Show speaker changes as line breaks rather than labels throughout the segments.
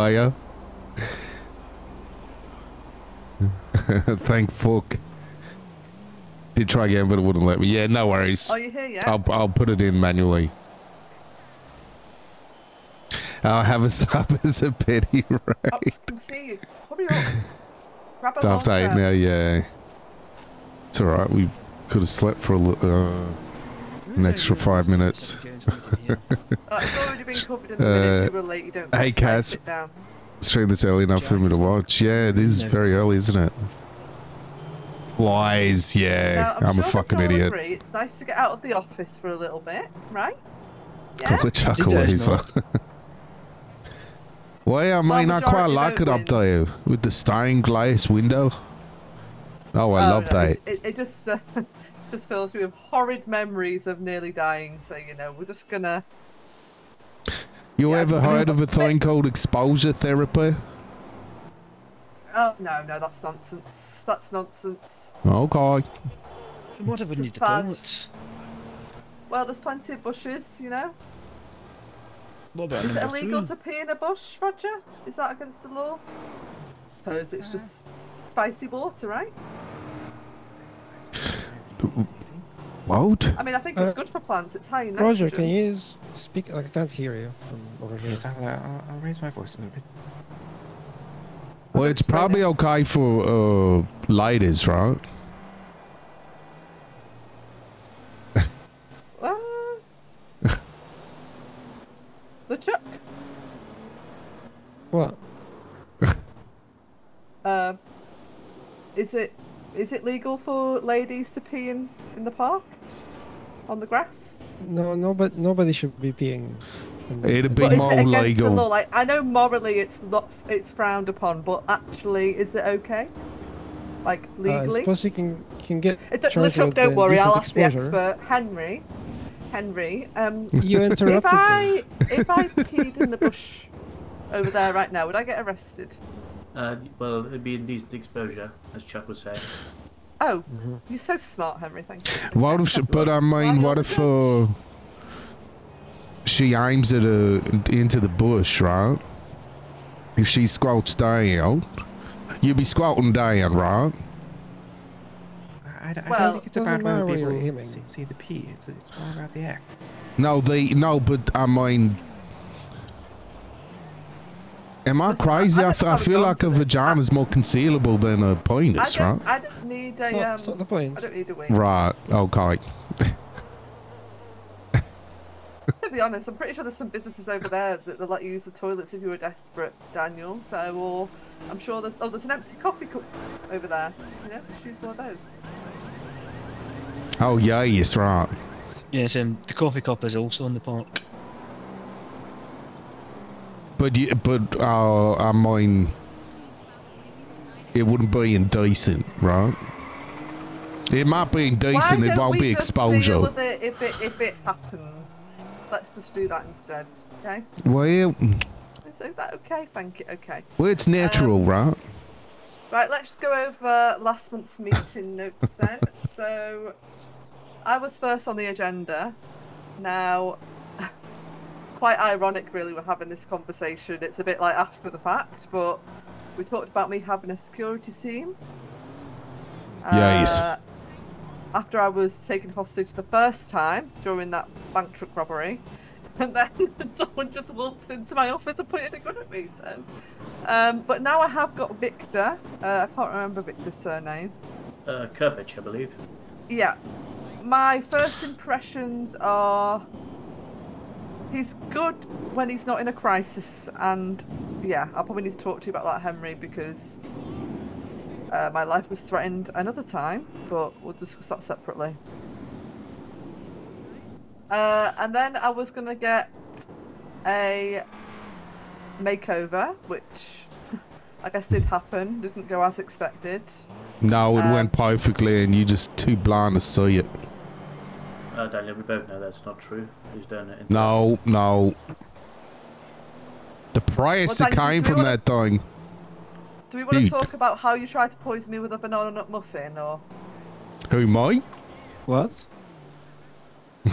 Fire. Thank fuck. Did try again, but it wouldn't let me. Yeah, no worries.
Are you Oh, here yet?
I'll, I'll put it in manually. I'll have a sub as a pity right
I can see you. Hurry up. Grab a
It's after eight
long
now, yeah. It's alright, we could have slept for a little, uh, an extra five minutes.
Uh, it's already been covered in the minutes.
Uh,
You were late. You don't.
hey,
need to, like,
Kaz.
sit down.
Stream that's early enough for me to watch. Yeah, it is very early, isn't it? Lies, yeah.
Now,
I'm, a
sure we
fucking
can all
idiot.
Agree. It's nice to get out of the office for a little bit, right? Yeah.
Couple of chuckle
Did I
laser. Why, I mean, I quite
majority
like it
vote
up there with the stained glass window. Oh, I
Oh,
love
no,
that.
It, it just uh, just fills me with horrid memories of nearly dying. So you know, we're just gonna.
You
Yeah, I
ever
just-
heard of a thing called exposure therapy?
Oh no, no, that's nonsense. That's nonsense.
Okay.
What I would
It's a
need to
fad.
call it?
Well, there's plenty of bushes, you know.
What about
Is it
number
illegal
three?
to pee in a bush, Roger? Is that against the law? suppose it's just spicy water, right?
What?
I mean, I think
Uh,
it's good for plants. It's high in
Roger,
nitrogen.
can you s- speak? Like, I can't hear you from over here.
Yes, I'll, uh, I'll, I'll raise my voice a little bit.
Well, it's probably okay for uh, ladies, right?
Ah. the chuck.
What?
Um, is it is it legal for ladies to pee in in the park on the grass?
No, no, but nobody should be peeing. in-
It'd be
But is
more
it against the law?
legal.
Like I know morally it's not it's frowned upon, but actually is it okay? Like
Uh, I
legally?
suppose you can can get
It don't,
charged
Luchuk,
with
don't
the
worry, I'll
indecent
ask the
exposure.
expert. Henry. Henry, um,
You
if
interrupted me.
I if I peed in the bush over there right now, would I get arrested?
Uh, well, it'd be indecent exposure, as Chuck was saying.
Oh,
Mm-hmm.
you're so smart, Henry. Thank you.
What if, but I mean, what if uh, she aims it uh, into the bush, right? If she squats down, you be squatting down, right?
I, I d- I
Well,
don't think it's
doesn't
about
matter
whether
where you're
people
aiming.
see, see the pee. It's, it's more about the act.
No, the no, but I mean, am I
Listen,
crazy?
I- I
I,
don't
th- I
have
feel
gone
like
to
a
this.
vagina's more concealable than a
I
penis, right?
don't, I don't need
It's
a
not,
um,
it's not the
I
point.
don't need a wing.
Right. Okay.
To be honest, I'm pretty sure there's some businesses over there that they'll let you use the toilets if you were desperate, Daniel. So, or I'm sure there's oh, there's an empty coffee cup over there. You know, just use one of those.
Oh yeah, yes, right.
Yes, um, the coffee cup is also in the park.
But you, but uh, I mean, it wouldn't be indecent, right? It might be indecent.
Why
It
don't
won't
we
be
just
exposure.
Deal with it if it if it happens. Let's just do that instead. Okay.
Well,
Is, is that okay? Thank you. Okay.
well, it's
Um,
natural, right?
Right, let's go over last month's meeting notes then. So, I was first on the agenda. Now, quite ironic, really, we're having this conversation. It's a bit like after the fact, but we talked about me having a security team.
Yes.
Uh, After I was taken hostage the first time during that bank truck robbery. And then someone just waltzed into my office and pointed a gun at me. So, um, but now I have got Victor. Uh, I can't remember Victor's surname.
Uh, Kirpich, I believe.
Yeah. My first impressions are he's good when he's not in a crisis, and yeah, I'll probably need to talk to you about that, Henry, because uh, my life was threatened another time, but we'll discuss that separately. Uh, and then I was gonna get a makeover, which I guess did happen, didn't go as expected.
No, it
um,
went perfectly, and you just too blind to see it.
Uh, Daniel, we both know that's not true. Who's done it? in-
No, no. The price
Well,
that
Daniel,
came
do you
from
wanna-
that thing.
Do we want to
Dude.
talk about how you tried to poison me with a banana nut muffin, or
Who, me?
What?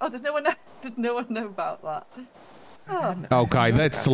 oh, did no one know? Did no one know about that? Oh.
Okay, that's